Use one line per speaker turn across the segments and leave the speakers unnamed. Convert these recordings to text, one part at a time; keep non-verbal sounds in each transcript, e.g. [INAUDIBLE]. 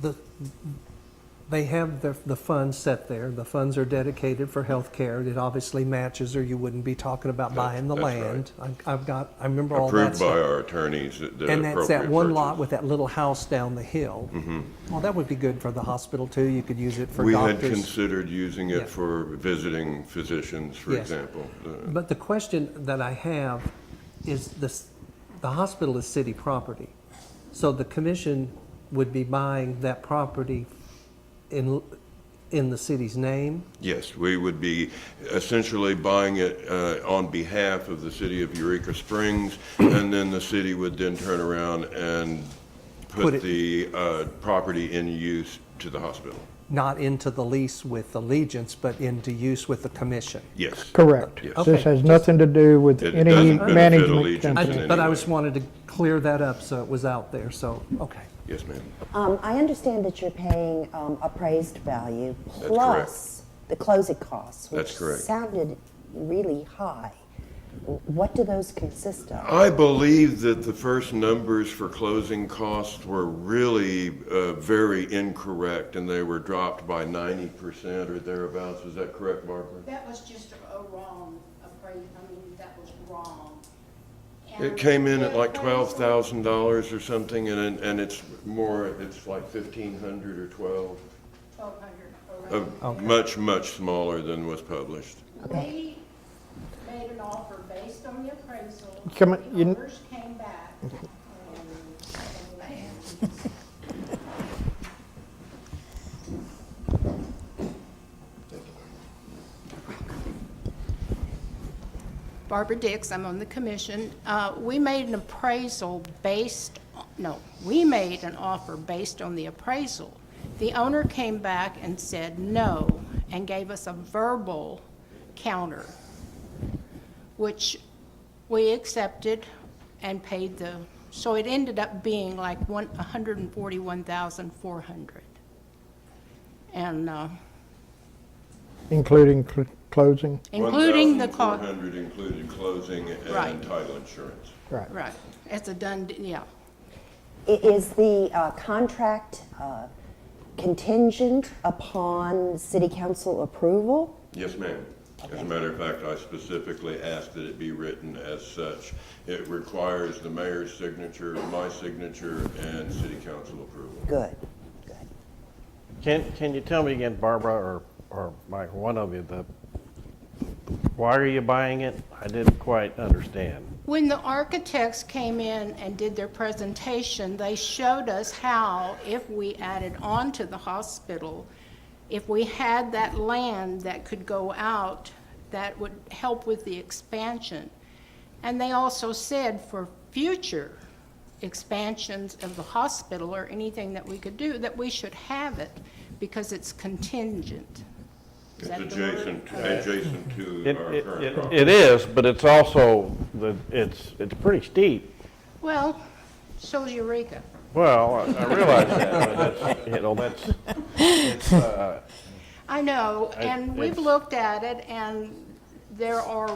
the, they have the, the funds set there. The funds are dedicated for healthcare. It obviously matches, or you wouldn't be talking about
That's-
buying the
that's right.
land. I- I've got, I remember all that
Approved by
stuff.
our attorneys that the
And that's that
appropriate
one lot
purchase. Mm-hmm.
with that little house down the hill. Well, that would be good for the hospital too. You could use it for
We had
doctors.
considered using
Yeah.
it for visiting physicians, for
Yes.
example. Uh, The-
But the question that I have is this, the hospital is city property. So the commission would be buying that property in, in the city's name?
Yes, we would be essentially buying it uh, on behalf of the city of Eureka Springs,
[COUGHS]
and then the city would then turn around and
Put
put
it-
the uh, property in use to the hospital.
not into the lease with Allegiance, but into use with the commission.
Yes.
Correct.
Yes.
Okay.
This has nothing to do with
It
any
doesn't benefit
management
Allegiant in
I-
company.
any
But I
way.
just wanted to clear that up so it was out there, so, okay.
Yes, ma'am.
Um, I understand that you're paying um, appraised value
correct.
plus the closing costs, which
That's correct.
sounded really high. What do those consist of?
I believe that the first numbers for closing costs were really uh, very incorrect, and they were dropped by 90% or thereabouts. Is that correct, Barbara?
That was just a a wrong appraisal, I mean, that was wrong.
It
And
came in at like
the
twelve
appraisal-
thousand dollars or something, and and- and it's more. It's like fifteen hundred or twelve.
1,200
Uh,
around.
Much much smaller than was published.
We made an offer based on the appraisal.
Come on,
The
you-
owners came back. um, Barbara Dix, I'm on the commission. Uh, We made an appraisal based, no, we made an offer based on the appraisal. The owner came back and said no, and gave us a verbal counter, which we accepted and paid the, so it ended up being like one, 141,400. And uh,
Including cl- closing,
including the
One
cost.
thousand four hundred included closing and
Right.
title insurance.
right.
Right, it's a done, d- yeah.
I- Is the uh, contract uh, contingent upon city council approval?
Yes, ma'am. As a matter of fact, I specifically asked that it be written as such. It requires the mayor's signature, my signature, and city council approval.
Good.
Can, can you tell me again, Barbara, or, or Mike, one of you, the, why are you buying it? I didn't quite understand.
When the architects came in and did their presentation, they showed us how, if we added on to the hospital, if we had that land that could go out, that would help with the expansion. And they also said for future expansions of the hospital or anything that we could do, that we should have it because it's contingent. Is
It's
that the word?
adjacent, adjacent to
It,
our
it,
current
it-
property.
it is, but it's also, the, it's, it's pretty steep.
Well, so's Eureka.
Well, I I realize that, but it's, you know, that's,
I know,
I-
and we've
it's-
looked at it, and there are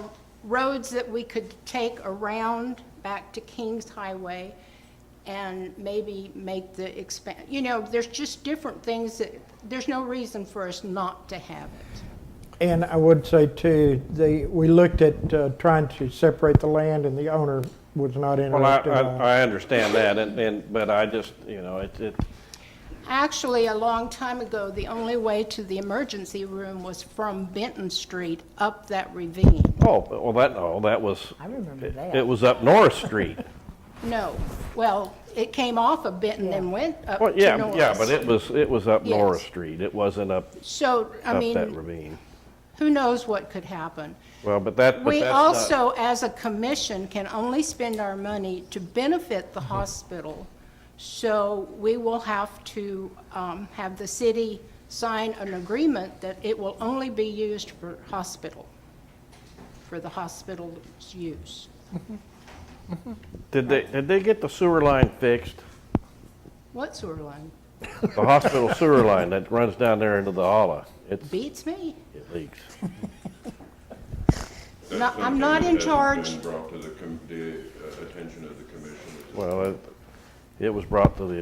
roads that we could take around back to Kings Highway and maybe make the expand, you know, there's just different things that, there's no reason for us not to have it.
And I would say too, the, we looked at uh, trying to separate the land and the owner was not
well, I,
interested. in that.
I, I understand that, and, and, but I just, you know, it, it,
Actually, a long time ago, the only way to the emergency room was from Benton Street up that ravine.
oh, well, that, no, that was.
I remember
it-
that.
It was up North Street.
No, well, it came off of Benton and went up
Well,
to
yeah, yeah,
Norris.
but it was, it was up
Yes.
Norris Street. It wasn't up,
So, I
up
mean.
that ravine.
who knows what could happen.
Well, but that, but
We
that's not-
also, as a commission, can only spend our money to benefit the
Mm-hmm.
hospital. So we will have to um, have the city sign an agreement that it will only be used for hospital, for the hospital's use.
Did they, did they get the sewer line fixed?
What sewer line?
The hospital sewer line that runs down there into the holla? It's,
Beats me.
it leaks.
That's
No,
something
I'm not
that
in
hasn't
charge.
been Brought to the, com- the uh, attention of the commission.
Well, it, it was brought to the